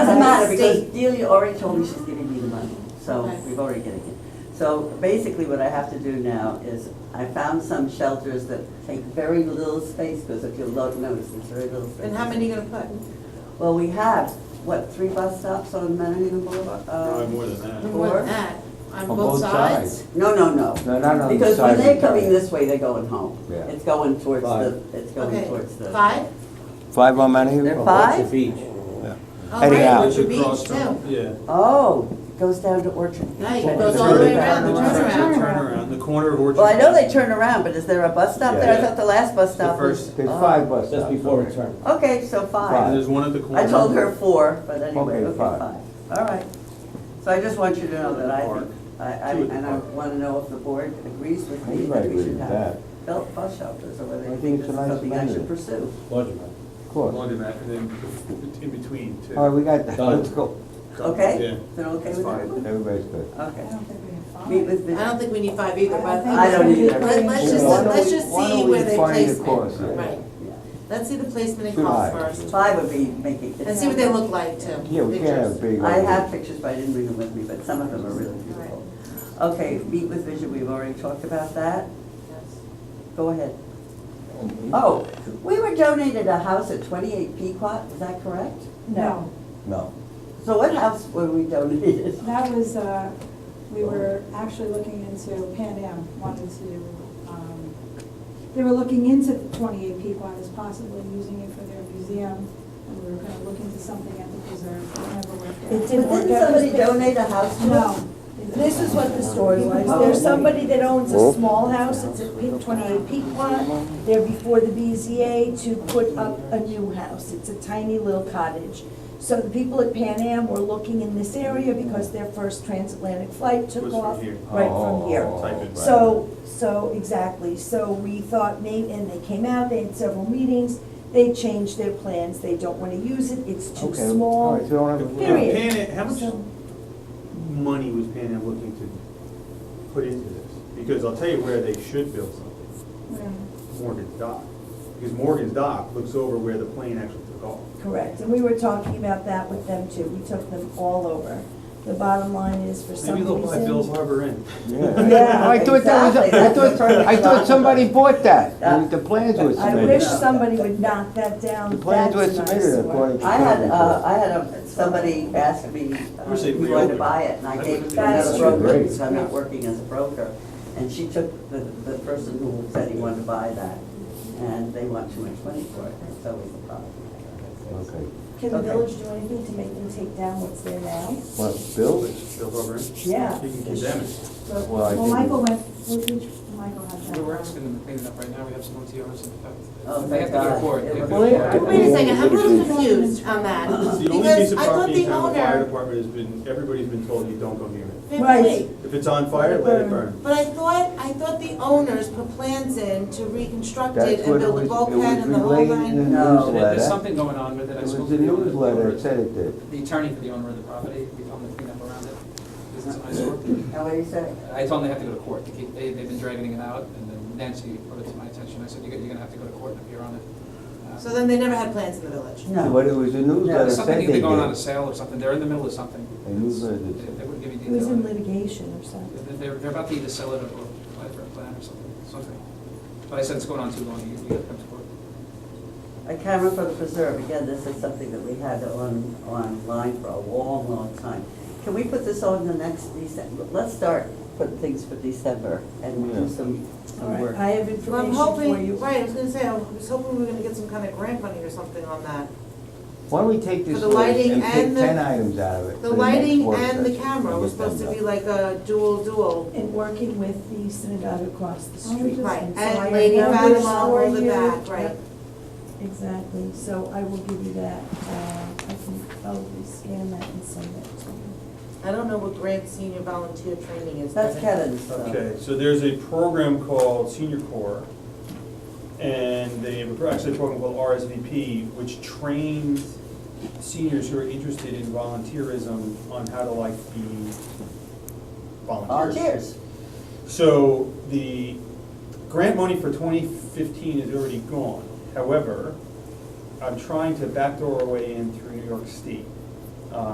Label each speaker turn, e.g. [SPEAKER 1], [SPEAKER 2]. [SPEAKER 1] matter because
[SPEAKER 2] state.
[SPEAKER 1] Delia already told me she's giving me the money, so
[SPEAKER 2] Okay.
[SPEAKER 1] we've already getting it. So basically what I have to do now is I found some shelters that take very little space because if you'll look, notice, there's very little space.
[SPEAKER 2] And how many are you gonna put?
[SPEAKER 1] Well, we have, what, three bus stops on Manhattan Boulevard? Uh,
[SPEAKER 3] Probably more than that.
[SPEAKER 2] We want
[SPEAKER 1] Four?
[SPEAKER 2] that, on both
[SPEAKER 4] On both
[SPEAKER 2] sides?
[SPEAKER 1] No, no, no.
[SPEAKER 4] No, not on the
[SPEAKER 1] Because when
[SPEAKER 4] side of
[SPEAKER 1] they're
[SPEAKER 4] the car.
[SPEAKER 1] coming this way, they're going home.
[SPEAKER 4] Yeah.
[SPEAKER 1] It's going towards the,
[SPEAKER 4] Five.
[SPEAKER 1] it's going
[SPEAKER 2] Okay,
[SPEAKER 1] towards the.
[SPEAKER 2] five?
[SPEAKER 4] Five on Manhattan?
[SPEAKER 1] There are five?
[SPEAKER 4] each.
[SPEAKER 2] All Oh, right,
[SPEAKER 4] Anyhow.
[SPEAKER 2] Orchard
[SPEAKER 3] Should
[SPEAKER 2] Beach,
[SPEAKER 3] cross from-
[SPEAKER 2] too.
[SPEAKER 3] Yeah.
[SPEAKER 1] Oh, it goes down to Orchard.
[SPEAKER 2] No, it
[SPEAKER 1] Then
[SPEAKER 2] goes
[SPEAKER 1] it's
[SPEAKER 2] all the way
[SPEAKER 1] turnaround.
[SPEAKER 2] around, the
[SPEAKER 3] Turnaround,
[SPEAKER 2] turnaround.
[SPEAKER 3] Turnaround, the corner of Orchard.
[SPEAKER 1] Well, I know they turn around, but is there a bus stop there? I
[SPEAKER 3] Yeah.
[SPEAKER 1] thought the last bus stop
[SPEAKER 3] The
[SPEAKER 1] was.
[SPEAKER 3] first.
[SPEAKER 4] There's
[SPEAKER 1] oh.
[SPEAKER 4] five bus stops.
[SPEAKER 5] Just before
[SPEAKER 4] okay.
[SPEAKER 5] return.
[SPEAKER 1] Okay, so
[SPEAKER 3] And
[SPEAKER 1] five.
[SPEAKER 3] there's one at the corner.
[SPEAKER 1] I told her four, but anyway,
[SPEAKER 4] Okay,
[SPEAKER 1] okay,
[SPEAKER 4] five.
[SPEAKER 1] five. All right. So I just want you to know that I
[SPEAKER 3] Park.
[SPEAKER 1] think, I, I,
[SPEAKER 3] Two at the
[SPEAKER 1] and I
[SPEAKER 3] park.
[SPEAKER 1] want to know if the board agrees with
[SPEAKER 4] I
[SPEAKER 1] me
[SPEAKER 4] think I
[SPEAKER 1] that we
[SPEAKER 4] agree
[SPEAKER 1] should
[SPEAKER 4] with
[SPEAKER 1] have
[SPEAKER 4] that.
[SPEAKER 1] belt bus shelters or whether
[SPEAKER 4] I think
[SPEAKER 1] this
[SPEAKER 4] it's
[SPEAKER 1] is
[SPEAKER 4] a nice
[SPEAKER 1] something I should
[SPEAKER 4] amendment.
[SPEAKER 1] pursue.
[SPEAKER 5] Laundromat.
[SPEAKER 4] Of course.
[SPEAKER 3] Laundromat, and then in between, too.
[SPEAKER 4] All right, we got that.
[SPEAKER 5] Done.
[SPEAKER 4] Let's go.
[SPEAKER 1] Okay?
[SPEAKER 3] Yeah.
[SPEAKER 1] Is it okay
[SPEAKER 3] That's
[SPEAKER 1] with
[SPEAKER 3] fine.
[SPEAKER 1] everyone?
[SPEAKER 4] Everybody's good.
[SPEAKER 1] Okay.
[SPEAKER 6] I don't think we have five.
[SPEAKER 1] Meet with
[SPEAKER 2] I don't
[SPEAKER 1] the,
[SPEAKER 2] think we need five either, but.
[SPEAKER 1] I don't either.
[SPEAKER 2] Let- Let's just,
[SPEAKER 4] Why don't
[SPEAKER 2] let's
[SPEAKER 4] we-
[SPEAKER 2] just
[SPEAKER 4] why
[SPEAKER 2] see
[SPEAKER 4] don't we
[SPEAKER 2] where they
[SPEAKER 4] find the
[SPEAKER 2] place it.
[SPEAKER 4] course, yeah.
[SPEAKER 2] Right,
[SPEAKER 1] yeah.
[SPEAKER 2] let's see the placement of
[SPEAKER 4] Good
[SPEAKER 2] costs
[SPEAKER 4] eye.
[SPEAKER 2] first,
[SPEAKER 1] five would be making.
[SPEAKER 2] and see what they look like, too.
[SPEAKER 4] Yeah, we can't have
[SPEAKER 2] Pictures.
[SPEAKER 4] big.
[SPEAKER 1] I
[SPEAKER 4] ones.
[SPEAKER 1] have pictures, but I didn't bring them with me, but some of them are really beautiful. Okay, meet with Vision, we've already talked about that. Go ahead. Oh, we were donated a house at twenty-eight Pequot, is that correct?
[SPEAKER 6] No,
[SPEAKER 4] No.
[SPEAKER 1] So what house were we donated?
[SPEAKER 6] that was, uh, we were actually looking into, Pan Am wanted to, um, they were looking into twenty-eight Pequot as possibly using it for their museum, and we were kind of looking into something at the preserve, it never worked out.
[SPEAKER 7] It
[SPEAKER 1] But
[SPEAKER 7] didn't work
[SPEAKER 1] didn't
[SPEAKER 7] out.
[SPEAKER 1] somebody donate a house to us?
[SPEAKER 6] No.
[SPEAKER 7] This is what the story was. There's somebody that owns
[SPEAKER 4] Oh.
[SPEAKER 7] a small house, it's at Pe- 28 Pequot. They're before the BZA to put up a new house. It's a tiny little cottage. So the people at Pan Am were looking in this area because their first transatlantic flight
[SPEAKER 3] Was
[SPEAKER 7] took
[SPEAKER 3] from
[SPEAKER 7] off
[SPEAKER 3] here.
[SPEAKER 7] right from here.
[SPEAKER 4] Oh,
[SPEAKER 3] Type it.
[SPEAKER 7] So, so, exactly, so we thought maybe, and they came out, they had several meetings, they changed their plans, they don't wanna use it, it's too
[SPEAKER 4] Okay, all
[SPEAKER 7] small.
[SPEAKER 4] right, so we don't have.
[SPEAKER 3] Now,
[SPEAKER 4] a-
[SPEAKER 7] Period.
[SPEAKER 3] Pan Am- how much
[SPEAKER 7] So-
[SPEAKER 3] money was Pan Am looking to put into this? Because I'll tell you where they should build something, Morgan's Dock. Because Morgan's Dock looks over where the plane actually took off.
[SPEAKER 7] Correct, and we were talking about that with them too, we took them all over. The bottom line is, for some
[SPEAKER 3] Maybe they'll buy Bill's
[SPEAKER 7] reason,
[SPEAKER 3] Harbor Inn.
[SPEAKER 4] Yeah. I thought that was,
[SPEAKER 1] exactly.
[SPEAKER 4] I
[SPEAKER 1] That's what
[SPEAKER 4] thought, I thought somebody bought that.
[SPEAKER 1] Yeah.
[SPEAKER 4] The plans were
[SPEAKER 7] I
[SPEAKER 4] submitted.
[SPEAKER 7] wish somebody would knock that
[SPEAKER 4] The
[SPEAKER 7] down,
[SPEAKER 4] plans
[SPEAKER 7] that's
[SPEAKER 4] were
[SPEAKER 7] an
[SPEAKER 4] submitted according
[SPEAKER 7] eyesore.
[SPEAKER 4] to.
[SPEAKER 1] I had, uh,
[SPEAKER 4] code enforcement.
[SPEAKER 1] I had a, somebody asked me, uh,
[SPEAKER 3] Wish they'd
[SPEAKER 1] who wanted to
[SPEAKER 3] reopen.
[SPEAKER 1] buy it, and I gave it to
[SPEAKER 7] That's
[SPEAKER 1] another
[SPEAKER 7] true.
[SPEAKER 1] broker,
[SPEAKER 4] Great.
[SPEAKER 1] because I'm not working as a broker. And she took the, the person who said he wanted to buy that, and they want too much money for it, and so was the problem.
[SPEAKER 4] Okay.
[SPEAKER 7] Can the
[SPEAKER 1] Okay.
[SPEAKER 7] village do anything to make them take down what's there now?
[SPEAKER 4] What, Bill?
[SPEAKER 3] Bill's Harbor Inn?
[SPEAKER 7] Yeah.
[SPEAKER 3] You can condemn it.
[SPEAKER 6] But-
[SPEAKER 4] Well, I
[SPEAKER 6] Well,
[SPEAKER 4] think-
[SPEAKER 6] Michael went, which, which Michael had that.
[SPEAKER 8] We We're asking them to clean it up right now, we have some OTRs in effect.
[SPEAKER 1] Oh,
[SPEAKER 8] They
[SPEAKER 1] thank
[SPEAKER 8] have to go
[SPEAKER 1] God.
[SPEAKER 8] to court. They have to
[SPEAKER 4] Well,
[SPEAKER 8] go to
[SPEAKER 4] yeah,
[SPEAKER 8] court.
[SPEAKER 2] Wait a second, I'm a little confused on that,
[SPEAKER 3] It's the only piece
[SPEAKER 2] because
[SPEAKER 3] of
[SPEAKER 2] I thought
[SPEAKER 3] property in
[SPEAKER 2] the
[SPEAKER 3] town, the fire
[SPEAKER 2] owner,
[SPEAKER 3] department has been, everybody's been told you don't go near it.
[SPEAKER 7] Right.
[SPEAKER 3] If it's on fire, let it burn.
[SPEAKER 2] but I thought, I thought the owners put plans in to reconstruct it
[SPEAKER 4] That's
[SPEAKER 2] and
[SPEAKER 4] what it
[SPEAKER 2] build a
[SPEAKER 4] was, it
[SPEAKER 2] bulkhead
[SPEAKER 4] was
[SPEAKER 2] and the whole
[SPEAKER 4] relayed in the
[SPEAKER 2] nine.
[SPEAKER 1] No.
[SPEAKER 8] There- There's
[SPEAKER 4] newsletter.
[SPEAKER 8] something going on with it, I
[SPEAKER 4] It was
[SPEAKER 8] spoke
[SPEAKER 4] a
[SPEAKER 8] to the owner.
[SPEAKER 4] newsletter, it said it did.
[SPEAKER 8] The attorney for the owner of the property, we told them to clean up around it, because it's an eyesore.
[SPEAKER 1] Now, what do you say?
[SPEAKER 8] I told them they have to go to court, They keep- they, they've been dragging it out, and then Nancy put it to my attention, I said, you're, you're gonna have to go to court and appear on it. Uh,
[SPEAKER 2] So then they never had plans in the village.
[SPEAKER 4] But it was a newsletter,
[SPEAKER 8] There's
[SPEAKER 4] said
[SPEAKER 8] something
[SPEAKER 4] they
[SPEAKER 8] either
[SPEAKER 4] did.
[SPEAKER 8] going on a sale or something, they're in the middle of something.
[SPEAKER 4] A newsletter
[SPEAKER 8] They
[SPEAKER 4] that
[SPEAKER 8] they
[SPEAKER 4] said.
[SPEAKER 8] wouldn't give me
[SPEAKER 7] It
[SPEAKER 8] detail.
[SPEAKER 7] was in
[SPEAKER 8] on it.
[SPEAKER 7] litigation or something.
[SPEAKER 8] They're, they're about to either sell it or or apply for a plan or something, something. But I said it's going on too long, you, you gotta come to court.
[SPEAKER 1] A camera for the preserve, again, this is something that we had on, online for a long, long time. Can we put this on the next December? Let's start putting things for December and do
[SPEAKER 4] Yeah.
[SPEAKER 1] some,
[SPEAKER 7] All
[SPEAKER 1] some
[SPEAKER 7] right,
[SPEAKER 1] work.
[SPEAKER 7] I
[SPEAKER 2] Well,
[SPEAKER 7] have
[SPEAKER 2] I'm
[SPEAKER 7] information for
[SPEAKER 2] hoping,
[SPEAKER 7] you.
[SPEAKER 2] right, I was gonna say, I was hoping we were gonna get some kind of grant money or something on that.
[SPEAKER 4] Why don't we take this
[SPEAKER 2] For the
[SPEAKER 4] list
[SPEAKER 2] lighting
[SPEAKER 4] and pick
[SPEAKER 2] and the-
[SPEAKER 4] ten items out of it? for
[SPEAKER 2] The
[SPEAKER 4] next
[SPEAKER 2] lighting
[SPEAKER 4] work
[SPEAKER 2] and the
[SPEAKER 4] session
[SPEAKER 2] camera
[SPEAKER 4] and
[SPEAKER 2] was
[SPEAKER 4] get them
[SPEAKER 2] supposed to
[SPEAKER 4] done.
[SPEAKER 2] be like a dual, dual.
[SPEAKER 7] And working with the synagogue across the
[SPEAKER 6] Oh,
[SPEAKER 7] street.
[SPEAKER 6] just-
[SPEAKER 2] Right,
[SPEAKER 7] And so I
[SPEAKER 2] and
[SPEAKER 7] have
[SPEAKER 2] Lady
[SPEAKER 7] numbers
[SPEAKER 2] Fatima all
[SPEAKER 7] for
[SPEAKER 2] the
[SPEAKER 7] you.
[SPEAKER 2] back, right.
[SPEAKER 7] Exactly, so I will give you that, uh, I can probably scan that and send that to you.
[SPEAKER 2] I don't know what grant senior volunteer training is.
[SPEAKER 1] That's uh,
[SPEAKER 2] but-
[SPEAKER 1] Kevin's stuff.
[SPEAKER 3] Okay, so there's a program called Senior Corps, and they have actually a program called RSVP, which trains seniors who are interested in volunteerism on how to like be volunteers.
[SPEAKER 1] Volunteers.
[SPEAKER 3] So the grant money for twenty fifteen is already gone. However, I'm trying to backdoor our way in through New York State. Uh,